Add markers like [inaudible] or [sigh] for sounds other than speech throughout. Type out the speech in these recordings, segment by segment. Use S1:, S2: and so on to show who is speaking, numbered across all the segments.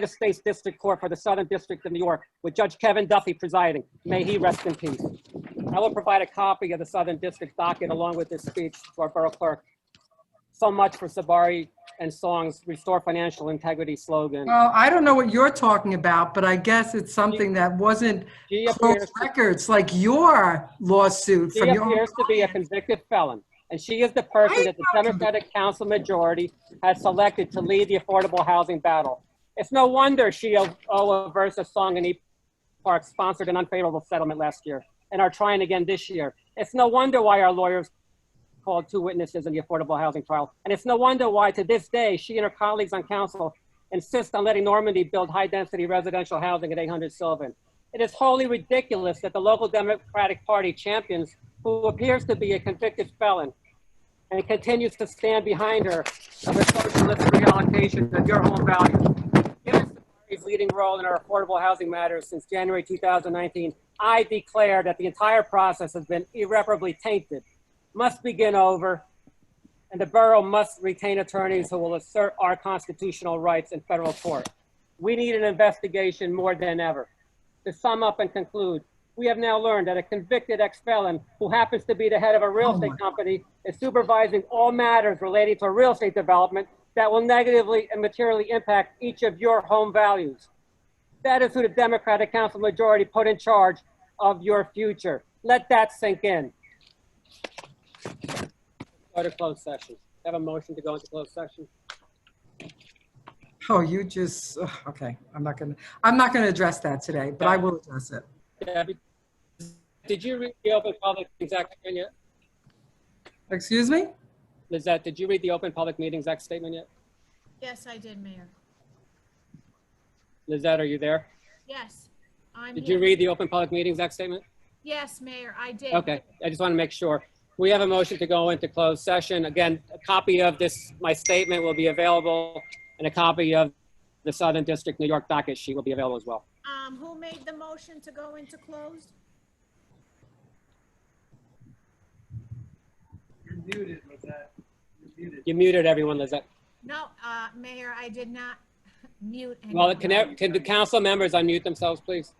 S1: United States District Court for the Southern District of New York with Judge Kevin Duffy presiding. May he rest in peace. I will provide a copy of the Southern District docket along with this speech to our Borough Clerk. So much for Sabari and Song's Restore Financial Integrity slogan.
S2: Well, I don't know what you're talking about, but I guess it's something that wasn't
S1: She
S2: close
S1: appears,
S2: records, like your lawsuit
S1: she
S2: from your.
S1: appears to be a convicted felon, and she is the person that the Democratic Council majority has selected to lead the affordable housing battle. It's no wonder she, Oa versus Song and E. Park sponsored an unfavorable settlement last year and are trying again this year. It's no wonder why our lawyers called two witnesses in the affordable housing trial. And it's no wonder why, to this day, she and her colleagues on council insist on letting Normandy build high density residential housing at 800 Sylvan. It is wholly ridiculous that the local Democratic Party champions who appears to be a convicted felon and continues to stand behind her of a socialist reallocation of your home value. Given Sabari's leading role in our affordable housing matters since January 2019, I declare that the entire process has been irreparably tainted, must begin over, and the borough must retain attorneys who will assert our constitutional rights in federal court. We need an investigation more than ever. To sum up and conclude, we have now learned that a convicted ex-felon who happens to be the head of a real
S2: Oh my-
S1: estate company is supervising all matters related to real estate development that will negatively and materially impact each of your home values. That is who the Democratic Council majority put in charge of your future. Let that sink in. Go to closed session. Have a motion to go into closed session.
S2: Oh, you just, ugh, okay, I'm not gonna, I'm not gonna address that today, but I will address it.
S1: Debbie, did you read the open public meetings act statement yet?
S2: Excuse me?
S1: Lizette, did you read the open public meetings act statement yet?
S3: Yes, I did, Mayor.
S1: Lizette, are you there?
S3: Yes, I'm
S1: Did you
S3: here.
S1: read the open public meetings act statement?
S3: Yes, Mayor, I did.
S1: Okay, I just want to make sure. We have a motion to go into closed session. Again, a copy of this, my statement will be available, and a copy of the Southern District New York docket sheet will be available as well.
S3: Um, who made the motion to go into closed?
S4: You're muted, Lizette. You're muted.
S1: You muted everyone, Lizette.
S3: No, uh, Mayor, I did not [laughs] mute.
S1: Well,
S3: anyone.
S1: can, ev- can the council members unmute themselves, please?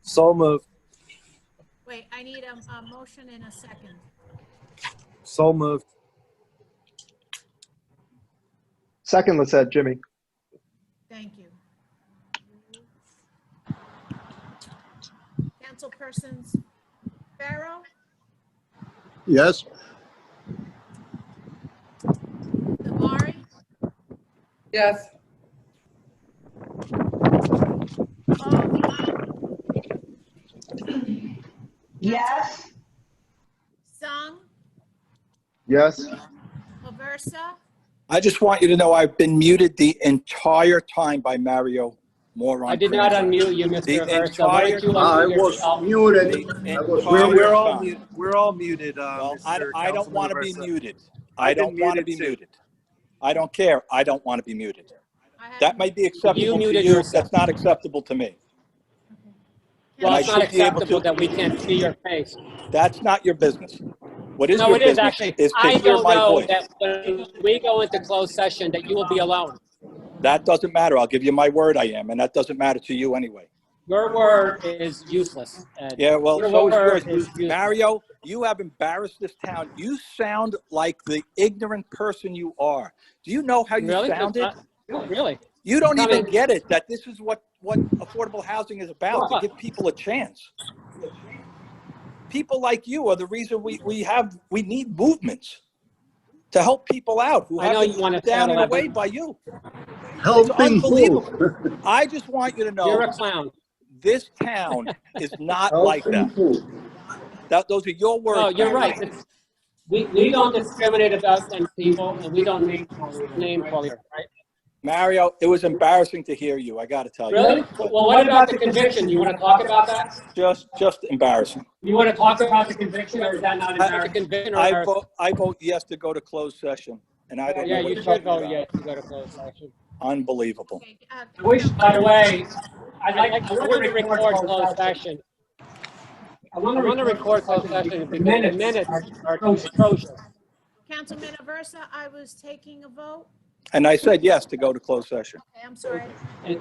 S5: So moved.
S3: Wait, I need a, a motion in a second.
S5: So moved.
S6: Second, let's add Jimmy.
S3: Thank you. Councilpersons Pharaoh,
S7: Yes,
S3: Devari,
S2: Yes.
S3: Paul,
S8: Yes.
S3: Sung,
S6: Yes.
S3: Aversa,
S7: I just want you to know I've been muted the entire time by Mario Moron.
S1: I did not unmute you,
S7: The
S1: Mr. Aversa. Why don't you
S7: entire-
S4: I
S1: unmute
S4: was
S1: yourself?
S4: muted. I was
S5: We're,
S7: We're
S5: we're
S4: muted.
S5: all, mu- we're all muted. uh,
S7: Well, I,
S5: Mr.
S7: I don't want to be
S5: Councilman Aversa.
S7: muted.
S5: I've
S7: I don't
S5: been
S7: want to
S5: muted
S7: be
S5: too.
S7: muted. I don't care. I don't want to be muted.
S3: I have.
S7: That might be acceptable to
S1: muted
S7: you.
S1: yourself.
S7: That's not acceptable to me.
S1: Well,
S7: I
S1: it's not
S7: should be able
S1: acceptable
S7: to-
S1: that we can't see your face.
S7: That's not your business. What is
S1: No,
S7: your
S1: it is
S7: business
S1: actually.
S7: is
S1: I
S7: to hear
S1: don't
S7: my
S1: know
S7: voice.
S1: that when we go into closed session that you will be alone.
S7: That doesn't matter. I'll give you my word I am, and that doesn't matter to you anyway.
S1: Your word is useless, Ed.
S7: Yeah, well,
S1: Your
S7: so is
S1: word
S7: yours.
S1: is useless.
S7: Mario, you have embarrassed this town. You sound like the ignorant person you are. Do you know how you
S1: Really?
S7: sounded?
S1: Uh, Really?
S7: You don't
S1: I
S7: even
S1: mean-
S7: get it that this is what, what affordable housing is about, to
S1: What?
S7: give people a chance. People like you are the reason we, we have, we need movements to help people out who
S1: I know
S7: have
S1: you wanna
S7: been down
S1: settle
S7: and away
S1: everything.
S7: by you.
S4: Helping who? [laughs]
S7: I just want you to
S1: You're a
S7: know,
S1: clown.
S7: this town is
S1: [laughs]
S7: not like
S4: Helping
S7: that.
S4: who?
S7: That, those are your words.
S1: No, Oh, you're
S7: Mario.
S1: right. It's- We, we don't discriminate about them people and we don't name, name call here, right?
S7: Mario, it was embarrassing to hear you. I got to tell you.
S1: Really?
S7: But
S1: Well, what about the conviction? You want to talk about that?
S7: Just, just embarrassing.
S1: You want to talk about the conviction or is that not
S7: I-
S1: embarrassing? Conviction
S7: I
S1: or?
S7: vote, I vote yes to go to closed session, and I don't
S1: Yeah,
S7: know what
S1: you
S7: you're
S1: should
S7: talking
S1: vote
S7: about.
S1: yes to go to closed session.
S7: Unbelievable.
S3: Okay, uh,
S1: I wish, by the way, I'd like, I want to record closed session. I want to record closed session because the minutes are atrocious.
S3: Councilman Aversa, I was taking a vote.
S7: And I said yes to go to closed session.
S3: Okay, I'm sorry.